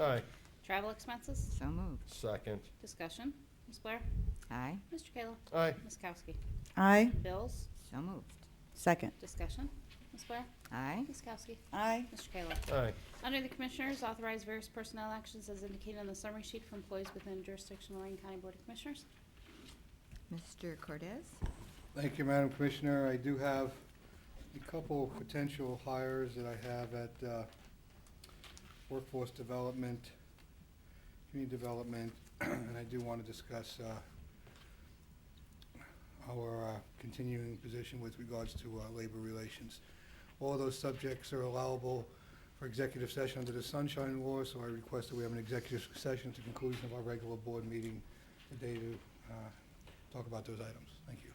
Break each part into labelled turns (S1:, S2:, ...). S1: Aye.
S2: Travel expenses?
S3: So moved.
S1: Second.
S2: Discussion. Ms. Blair?
S3: Aye.
S2: Mr. Kayla?
S1: Aye.
S2: Ms. Kowski?
S4: Aye.
S2: Bills?
S3: So moved.
S4: Second.
S2: Discussion. Ms. Blair?
S3: Aye.
S2: Ms. Kowski?
S4: Aye.
S2: Mr. Kayla?
S1: Aye.
S2: Under the Commissioners, authorize various personnel actions as indicated on the summary sheet for employees within jurisdiction of Lorraine County Board of Commissioners.
S3: Mr. Cordez?
S5: Thank you, Madam Commissioner. I do have a couple of potential hires that I have at uh, Workforce Development, Community Development, and I do want to discuss uh, our uh, continuing position with regards to uh, labor relations. All those subjects are allowable for executive session under the Sunshine Law, so I request that we have an executive session at the conclusion of our regular board meeting today to uh, talk about those items. Thank you.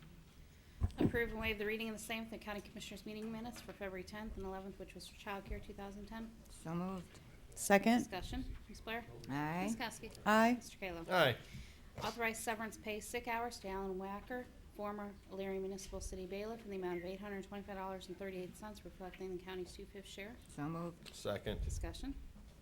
S2: Approve and waive the reading of the same for the County Commissioners meeting minutes for February 10th and 11th, which was for childcare 2010.
S3: So moved.
S4: Second.
S2: Discussion. Ms. Blair?
S3: Aye.
S2: Ms. Kowski?
S4: Aye.
S2: Mr. Kayla?
S1: Aye.
S2: Authorize severance pay sick hours to Alan Wacker, former Leary Municipal City bailiff, in the amount of $825.38, reflecting the county's two-fifth share.
S3: So moved.
S1: Second.
S2: Discussion.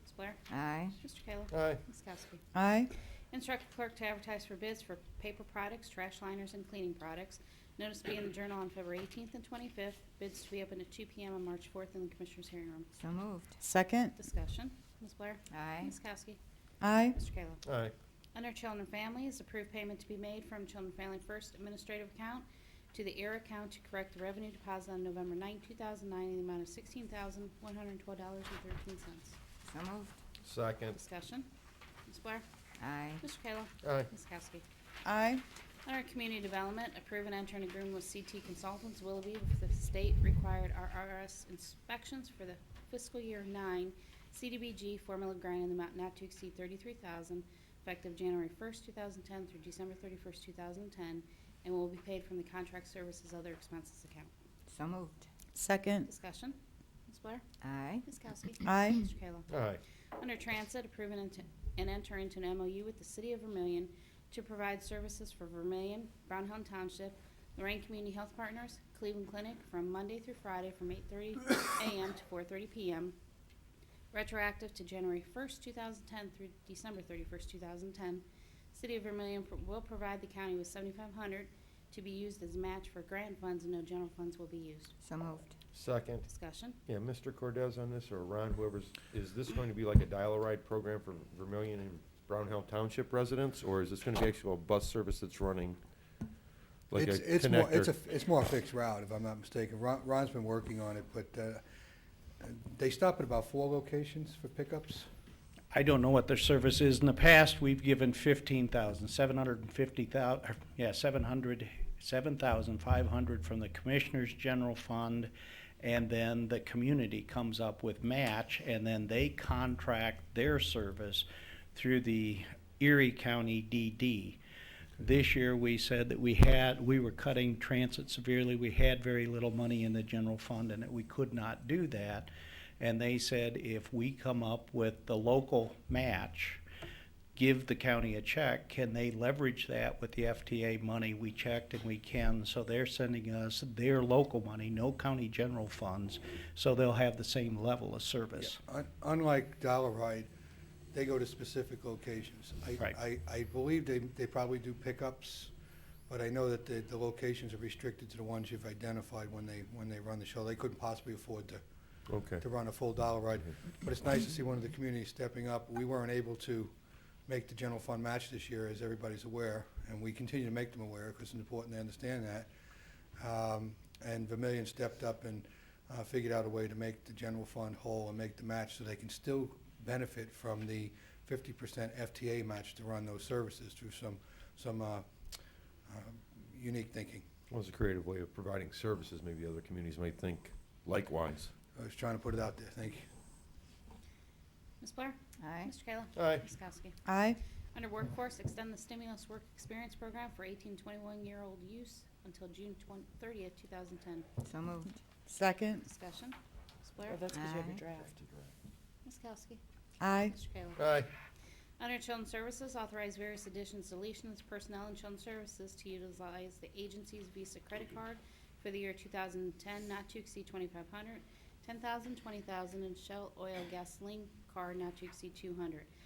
S2: Ms. Blair?
S3: Aye.
S2: Mr. Kayla?
S1: Aye.
S2: Ms. Kowski?
S4: Aye.
S2: Instruct clerk to advertise for bids for paper products, trash liners, and cleaning products. Notice to be in the Journal on February 18th and 25th. Bids to be open at 2 PM on March 4th in the Commissioners' hearing room.
S3: So moved.
S4: Second.
S2: Discussion. Ms. Blair?
S3: Aye.
S2: Ms. Kowski?
S4: Aye.
S2: Mr. Kayla?
S1: Aye.
S2: Under Children and Family is approved payment to be made from Children and Family First Administrative Account to the ERA account to correct the revenue deposit on November 9, 2009, in the amount of $16,112.13.
S3: So moved.
S1: Second.
S2: Discussion. Ms. Blair?
S3: Aye.
S2: Mr. Kayla?
S1: Aye.
S2: Ms. Kowski?
S4: Aye.
S2: Under Community Development, approve and enter an agreement with CT Consultants Willoughby for the state-required RRS inspections for the fiscal year nine CDBG formula grant in the amount not to exceed thirty-three thousand, effective January first, two thousand ten through December thirty-first, two thousand ten, and will be paid from the contract services other expenses account.
S3: So moved.
S4: Second.
S2: Discussion. Ms. Blair?
S3: Aye.
S2: Ms. Kowski?
S4: Aye.
S2: Mr. Kayla?
S1: Aye.
S2: Under Transit, approve and ent- and enter into an MOU with the City of Vermillion to provide services for Vermillion, Brown Hill Township, Lorraine Community Health Partners, Cleveland Clinic from Monday through Friday from 8:30 a.m. to 4:30 p.m., retroactive to January 1st, 2010 through December 31st, 2010. City of Vermillion pro- will provide the county with 7,500 to be used as match for grant funds, and no general funds will be used.
S3: So moved.
S1: Second.
S2: Discussion.
S1: Yeah, Mr. Cordez on this, or Ron, whoever's, is this going to be like a dial-a-ride program for Vermillion and Brown Hill Township residents? Or is this gonna be actual bus service that's running? Like a
S5: It's, it's more, it's a,
S1: connector?
S5: it's more a fixed route, if I'm not mistaken. Ron, Ron's been working on it, but, uh, they stop at about four locations for pickups.
S6: I don't know what their service is. In the past, we've given fifteen thousand, seven hundred and fifty thou, yeah, seven hundred, seven thousand five hundred from the Commissioners General Fund. And then the community comes up with match and then they contract their service through the Erie County DD. This year, we said that we had, we were cutting transit severely, we had very little money in the general fund, and that we could not do that. And they said, if we come up with the local match, give the county a check, can they leverage that with the FTA money? We checked and we can, so they're sending us their local money, no county general funds, so they'll have the same level of service.
S5: Un- Unlike Dollar Ride, they go to specific locations. I-
S6: Right.
S5: I, I believe they, they probably do pickups, but I know that the, the locations are restricted to the ones you've identified when they, when they run the show. They couldn't possibly afford to
S1: Okay.
S5: to run a full dollar ride. But it's nice to see one of the communities stepping up. We weren't able to make the general fund match this year, as everybody's aware, and we continue to make them aware because it's important they understand that. Um, And Vermillion stepped up and uh, figured out a way to make the general fund whole and make the match so they can still benefit from the fifty percent FTA match to run those services through some, some uh, um, unique thinking.
S1: Well, it's a creative way of providing services, maybe other communities might think likewise.
S5: I was trying to put it out there. Thank you.
S2: Ms. Blair?
S3: Aye.
S2: Mr. Kayla?
S1: Aye.
S2: Ms. Kowski?
S4: Aye.
S2: Under Workforce, extend the stimulus work experience program for 18 to 21-year-old use until June 20 30th, 2010.
S3: So moved.
S4: Second.
S2: Discussion. Ms. Blair?
S4: that's
S3: Oh, 'cause you have your Aye.
S4: draft.
S2: Ms. Kowski?
S4: Aye.
S2: Mr. Kayla?
S1: Aye.
S2: Under Children's Services, authorize various additions, deletions, personnel and Children's Services to utilize the agency's Visa credit card for the year 2010, not to exceed 2,500, 10,000, 20,000, and Shell Oil Gasoline Card not to exceed 200.